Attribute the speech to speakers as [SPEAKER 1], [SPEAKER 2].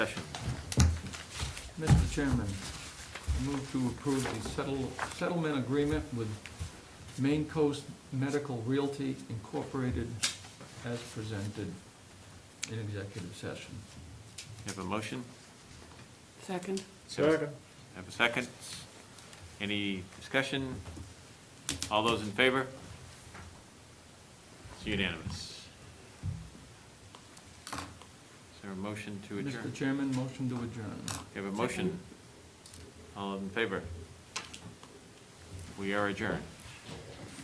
[SPEAKER 1] Mr. Chairman, I move to approve the settle- settlement agreement with Maine Coast Medical Realty Incorporated as presented in executive session.
[SPEAKER 2] Have a motion?
[SPEAKER 3] Second?
[SPEAKER 2] Second. Have a second? Any discussion? All those in favor? It's unanimous. Is there a motion to
[SPEAKER 1] Mr.
[SPEAKER 2] adjourn?
[SPEAKER 1] Chairman, motion to adjourn.
[SPEAKER 2] You have a motion? All in favor? We are adjourned.